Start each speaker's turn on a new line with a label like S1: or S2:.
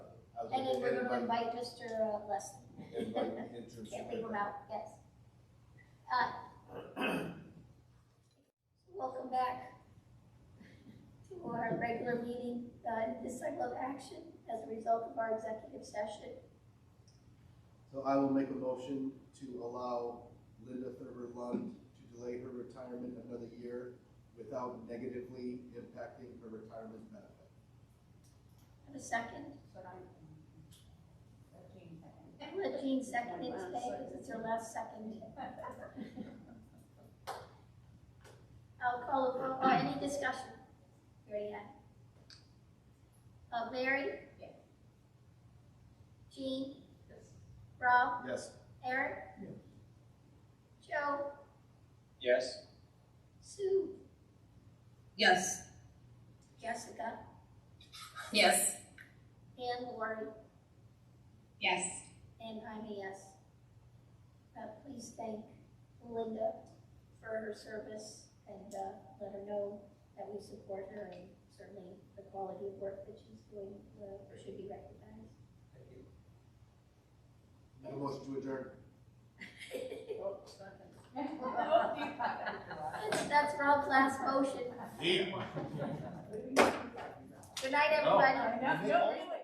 S1: And
S2: And
S1: we're gonna
S2: invite-
S1: invite Mr. Leslie,
S2: Invite interest.
S1: can't leave him out, yes. Uh, Welcome back to our regular meeting, uh, this cycle of action as a result of our executive session.
S2: So I will make a motion to allow Linda Thurber Lund to delay her retirement another year without negatively impacting her retirement benefit.
S1: Have a second?
S3: But I, thirteen seconds.
S1: I'm gonna let Jean second it today, because it's her last second. I'll call, a roll- uh, any discussion? Mary Ann? Uh, Mary?
S3: Yes.
S1: Jean? Rob?
S2: Yes,
S1: Eric? Joe?
S4: Yes.
S1: Sue?
S5: Yes.
S1: Jessica?
S5: Yes.
S1: And Lori?
S5: Yes.
S1: And I'm a yes. Uh, please thank Linda for her service and, uh, let her know that we support her and certainly the quality of work that she's doing, uh, should be recognized.
S2: make a motion to adjourn.
S1: That's- That's Rob's last motion. Good night, everybody.
S3: I know, really.